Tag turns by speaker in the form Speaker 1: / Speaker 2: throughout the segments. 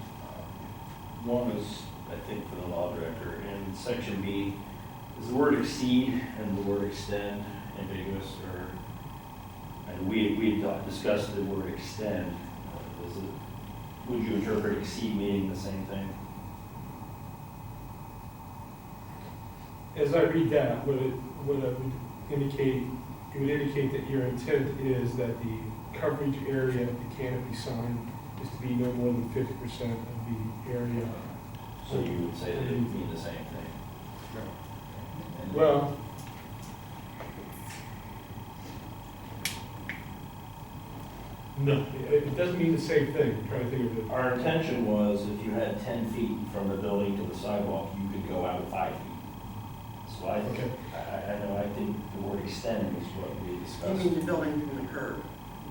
Speaker 1: Um, One is, I think, for the law director, in section B, is the word exceed and the word extend ambiguous or, and we, we had discussed the word extend. Uh, Is it, would you interpret exceed meaning the same thing?
Speaker 2: As I read that, what it, what it would indicate, it would indicate that your intent is that the coverage area of the canopy sign is to be no more than fifty percent of the area.
Speaker 1: So you would say that it would mean the same thing? And-
Speaker 2: Well, no, it, it doesn't mean the same thing, I'm trying to think of it.
Speaker 1: Our intention was if you had ten feet from the building to the sidewalk, you could go out five feet. So I,
Speaker 2: Okay.
Speaker 1: I, I know, I think the word extend is what we
Speaker 3: You mean
Speaker 1: discussed.
Speaker 3: the building from the curb,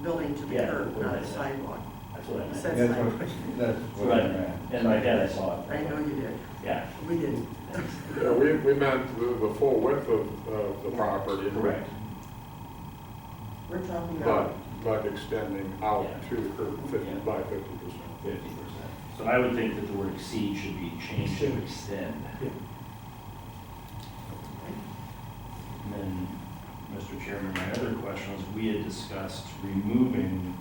Speaker 3: building to the
Speaker 1: Yeah,
Speaker 3: curb,
Speaker 1: what
Speaker 3: not
Speaker 1: I
Speaker 3: the
Speaker 1: said.
Speaker 3: sidewalk.
Speaker 1: That's what I
Speaker 3: You
Speaker 1: meant.
Speaker 3: said
Speaker 4: That's
Speaker 3: sidewalk.
Speaker 4: what, that's what I
Speaker 1: Right,
Speaker 4: meant.
Speaker 1: and like that, I saw it.
Speaker 3: I know you did,
Speaker 1: Yeah,
Speaker 3: we did.
Speaker 1: thanks.
Speaker 5: Yeah, we, we meant the, the full width of, of the property.
Speaker 1: Correct.
Speaker 3: We're talking
Speaker 5: But,
Speaker 3: about,
Speaker 5: but extending out to the curb fifty
Speaker 1: Yeah.
Speaker 5: by fifty percent.
Speaker 1: Fifty percent. So I would think that the word exceed should be changed to extend.
Speaker 2: Yeah.
Speaker 1: And then, Mr. Chairman, my other question was, we had discussed removing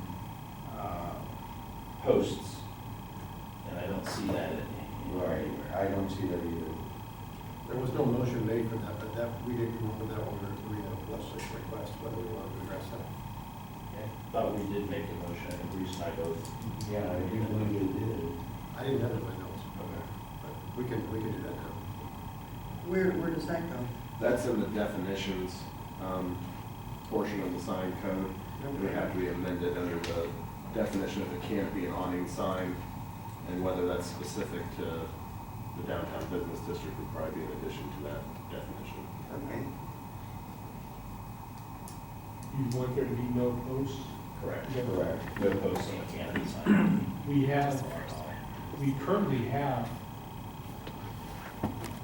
Speaker 1: uh, posts, and I don't see that in-
Speaker 4: Right,
Speaker 1: anywhere.
Speaker 4: I don't see that either.
Speaker 6: There was no motion made for that, but that, we did come up with that one, or we had a legislative request, whether we wanted to address that.
Speaker 1: I Thought we did make the motion, and Bruce and I both.
Speaker 4: Yeah, I do believe it did.
Speaker 6: I didn't have it in my notes, but we can, we can do that now.
Speaker 3: where, where does that go?
Speaker 7: That's in the definitions, um, portion of the sign code. It would have to be amended under the definition of a canopy and awning sign, and whether that's specific to the downtown business district would probably be in addition to that definition.
Speaker 3: Okay,
Speaker 2: You want there to be no posts?
Speaker 1: Correct.
Speaker 2: Is that-
Speaker 1: No posts on the canopy sign.
Speaker 2: We have, we currently have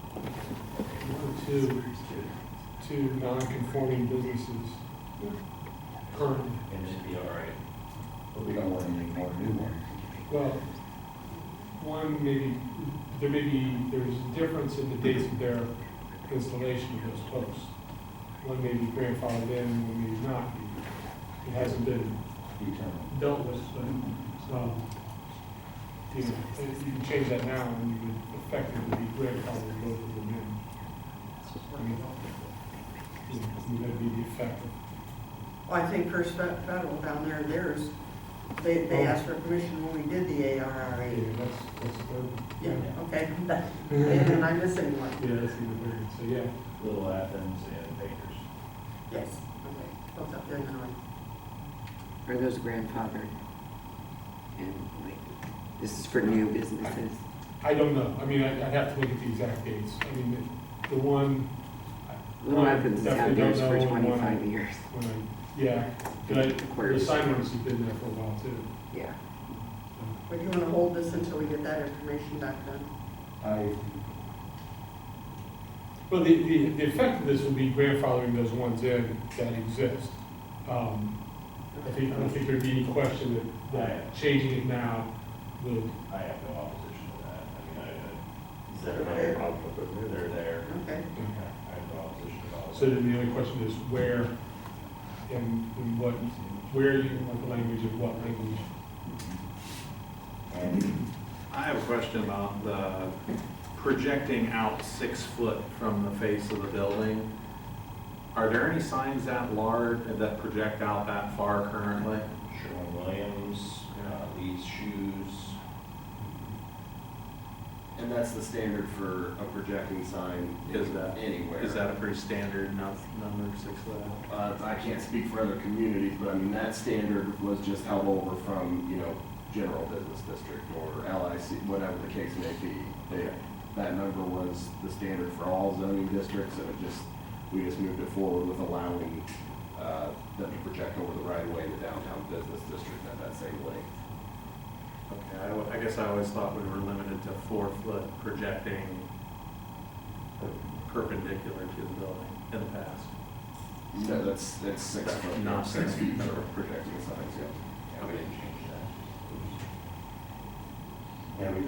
Speaker 2: one, two, two non-conforming businesses currently.
Speaker 1: And it'd be all right.
Speaker 4: But we don't want any more new ones.
Speaker 2: Well, one maybe, there may be, there's a difference in the dates of their installation of those posts. One may be grandfathered in, one may not be. It hasn't been
Speaker 4: Determined.
Speaker 2: dealt with, but, so, you know, if you can change that now, and you would effectively be grandfathered both of them in. I mean, you know, it's gonna be the effect of,
Speaker 3: well, I think First Fe- Federal down there, theirs, they,
Speaker 1: Oh.
Speaker 3: they asked for permission when we did the ARRA.
Speaker 2: yeah, that's, that's the,
Speaker 3: Yeah,
Speaker 2: yeah.
Speaker 3: okay, and then I'm missing one,
Speaker 2: Yeah, that's the word, so, yeah.
Speaker 1: Little Athens and Bakers.
Speaker 3: yes, okay, both up there now.
Speaker 8: Are those grandfathered? And like, this is for new businesses?
Speaker 2: I don't know, I mean, I, I'd have to look at the exact dates, I mean, the, the one.
Speaker 8: Little
Speaker 2: one I
Speaker 8: Athens has had
Speaker 2: definitely don't
Speaker 8: theirs for
Speaker 2: know, and one
Speaker 8: twenty-five years,
Speaker 2: When I, yeah, but I, the
Speaker 8: Aquarius.
Speaker 2: sign owners have been there for a while too.
Speaker 8: yeah.
Speaker 3: But you wanna hold this until we get that information back then?
Speaker 4: I,
Speaker 2: Well, the, the, the effect of this will be grandfathering those ones in that exist. Um, I think, I don't think there'd be any question that, that changing it now would,
Speaker 1: I have no opposition to that. I mean, I, I, is that
Speaker 3: Okay.
Speaker 1: there? They're there.
Speaker 3: Okay,
Speaker 1: I have no opposition at all.
Speaker 2: so then the only question is where and, and what, where you want the language and what language.
Speaker 9: I have a question about the projecting out six foot from the face of the building. Are there any signs that large, that project out that far currently?
Speaker 1: Sherwin Williams, uh, Lee's Shoes,
Speaker 7: And that's the standard for a projecting sign
Speaker 9: Is that-
Speaker 7: anywhere.
Speaker 9: Is that a pretty standard enough number, six foot out?
Speaker 7: Uh, I can't speak for other communities, but I mean, that standard was just held over from, you know, general business district or LIC, whatever the case may be. They, that number was the standard for all zoning districts, and it just, we just moved it forward with allowing, uh, them to project over the right of way in the downtown business district at that same length.
Speaker 9: Okay, I al- I guess I always thought we were limited to four foot projecting perpendicular to the building in the past.
Speaker 7: No, that's, that's six foot,
Speaker 9: Not
Speaker 7: six
Speaker 9: six.
Speaker 7: feet for projecting signs, yeah.
Speaker 9: Okay.
Speaker 1: change that.
Speaker 4: yeah, we